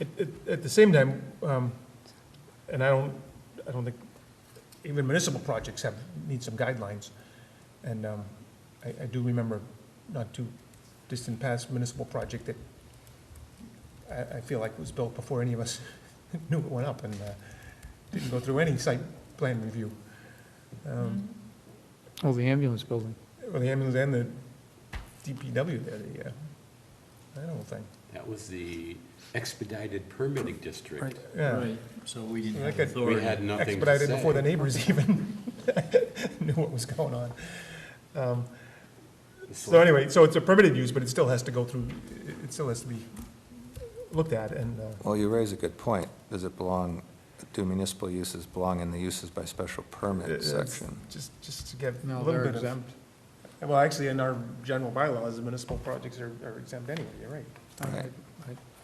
At, at- at the same time, um, and I don't, I don't think, even municipal projects have, need some guidelines. And um, I, I do remember not too distant past municipal project that I, I feel like was built before any of us knew it went up and uh, didn't go through any site plan review. Um, Oh, the ambulance building. Well, the ambulance and the DPW, there, the, uh, that whole thing. That was the expedited permitting district. Yeah, Right, so we didn't Like have a- We authority. had nothing to expedited before the say. neighbors even knew what was going on. Um, It's So like- anyway, so it's a permitted use, but it still has to go through, it still has to be looked at and, uh, Well, you raise a good point. Does it belong, do municipal uses belong in the uses by special permit it's section? just, just to get a No, little they're bit of. exempt. Well, actually, in our general bylaws, municipal projects are are exempt anyway, you're right.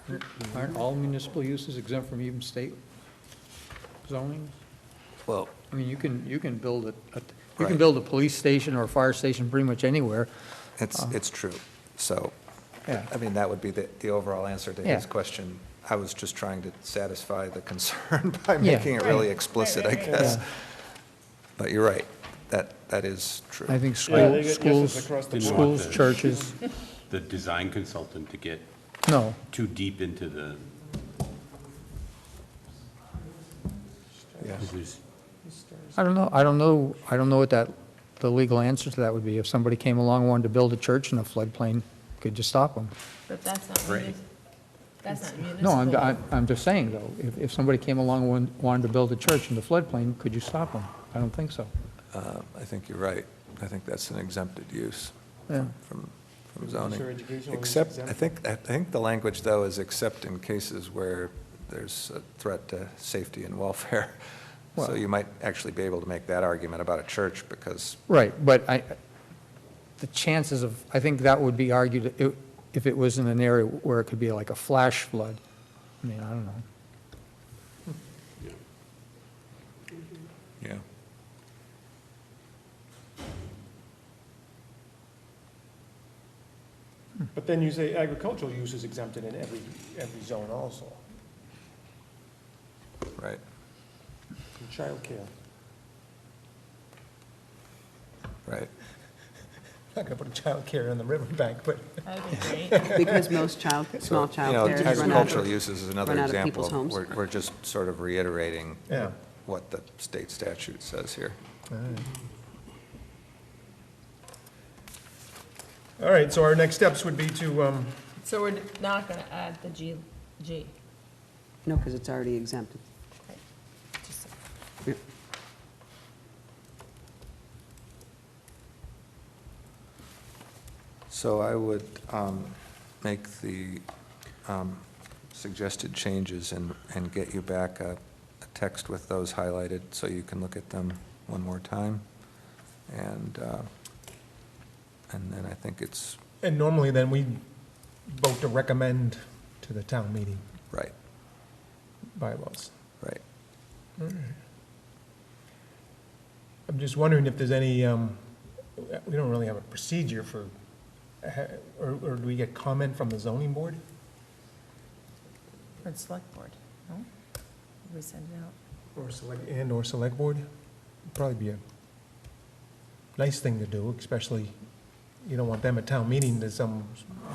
Right. Aren't all municipal uses exempt from even state zoning? Well, I mean, you can, you can build a, a- you can Right. build a police station or a fire station pretty much anywhere. it's, it's true. So, Yeah. I mean, that would be the, the overall answer to his Yeah. question. I was just trying to satisfy the concern by Yeah. making it really explicit, I guess. Yeah. But you're right. That, that is true. I think Yeah, school- schools, Didn't want schools, the- churches, The design consultant to get no. too deep into the, Yeah. there's- I don't know, I don't know, I don't know what that, the legal answer to that would be. If somebody came along, wanted to build a church in a floodplain, could you stop them? But that's not Right. municipal. That's not municipal. No, I'm, I- I'm just saying, though, if, if somebody came along and wanted to build a church in the floodplain, could you stop them? I don't think so. Uh, I think you're right. I think that's an exempted use Yeah. from, Sure, from zoning. educational is Except, I exempt. think, I think the language, though, is except in cases where there's a threat to safety and welfare. So Well- you might actually be able to make that argument about a church, because, Right, but I, the chances of, I think that would be argued i- if it was in an area where it could be like a flash flood. I mean, I don't know. yeah. But then you say agricultural use is exempted in every, every zone also, right? and childcare. Right. Not gonna put a childcare in the riverbank, but That would be great. Because most child, small So, you know, child care has run out Agricultural of. uses is another run out of example. people's of- homes. We're, we're just sort of reiterating Yeah. what the state statute says here. All right, so our next steps would be to, um, So we're not gonna add the G, G. No, because it's already exempted. Just- So I would um, make the um, suggested changes and, and get you back a, a text with those highlighted, so you can look at them one more time. And, uh, and then I think it's, and normally then we vote to recommend to the town meeting right, bylaws. right. I'm just wondering if there's any, um, we don't really have a procedure for, ha- or, or do we get comment from the zoning board? For the select board, no? We send it out. Or select, and or select board? Probably be a nice thing to do, especially, you don't want them at town meeting, there's some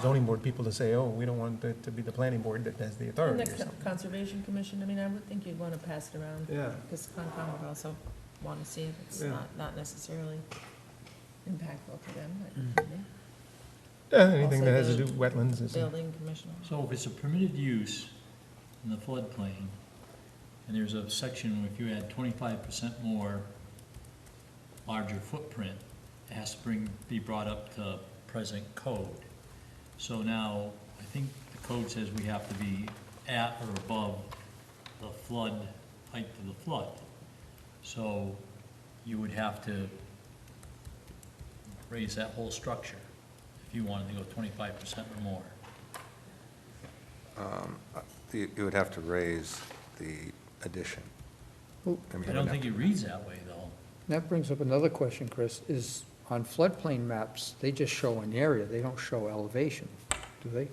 zoning board people to say, oh, we don't want it to be the planning board that has the And authority the or something. conservation commission, I mean, I would think you'd wanna pass it around. Yeah. Because Concom would also wanna see it. It's Yeah. not, not necessarily impactful to them, Mm. but Uh, Anything that has to Also do the with wetlands is, building commissioner. So if it's a permitted use in the floodplain, and there's a section where if you add twenty-five percent more larger footprint, it has to bring, be brought up to present code. So now, I think the code says we have to be at or above the flood, height of the flood. So you would have to raise that whole structure if you wanted to go twenty-five percent or more. You you would have to raise the addition. Well, mean, I you'd don't have think to- it reads that way, though. That brings up another question, Chris, is on floodplain maps, they just show an area, they don't show elevation, do they?